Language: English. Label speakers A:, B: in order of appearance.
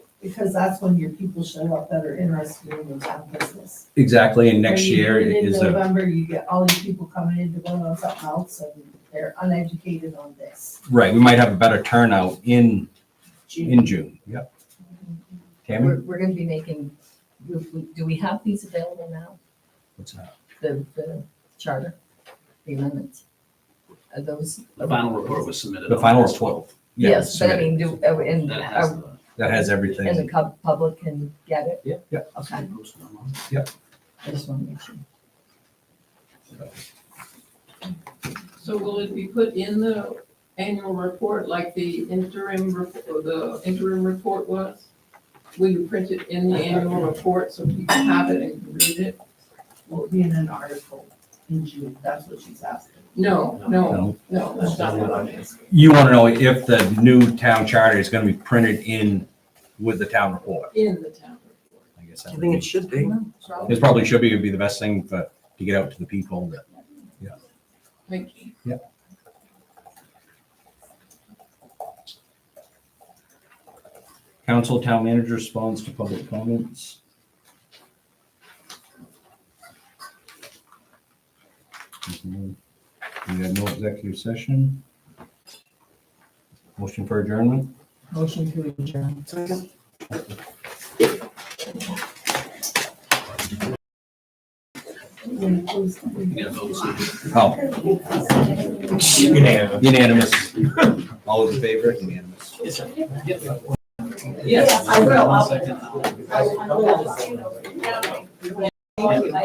A: because that's when your people show up that are interested in your town business.
B: Exactly, and next
A: When you
B: year
A: do it
B: is
A: In
B: a,
A: November, you get all these people coming in to vote on something else and they're uneducated on this.
B: right, we might have a better turnout in,
C: June.
B: in June, yep. Tammy?
C: We're, we're gonna be making, do we- do we have these available now,
B: What's that?
C: the, the charter, the amendments? Are those?
D: The final report was submitted.
B: The
D: on
B: final
D: August
B: report.
D: 12th.
B: Yeah,
C: Yes, but I
B: submit it.
C: mean, do, uh, and,
D: That has
C: uh,
D: the.
B: That has
C: and the
B: everything.
C: cub- public can get it?
D: Yeah.
B: Yeah.
C: Okay,
D: posted online.
C: I just want to make sure.
E: So will it be put in the annual report like the interim, rep- or the interim report was? Will you print it in the annual report so people have it and can read it?
A: Will be in an article in June, that's what she's asking.
E: No, no,
B: No.
E: no, that's not what I'm asking.
B: You want to know if the new town charter is going to be printed in with the town report?
E: In the town report.
B: I guess
F: I
B: that would
F: think it
B: be,
F: should be.
B: it probably should be, would be the best thing for, to get out to the people that,
E: Thank you.
B: council, town manager responds to public comments. Mm-hmm. We have no executive session. Motion for adjournment?
C: Motion to adjourn.
D: You gotta vote, so-
B: Oh. Unanimous. Unanimous. All those in favor? Unanimous.
E: Yes,
A: I will.
D: One second.
A: I will.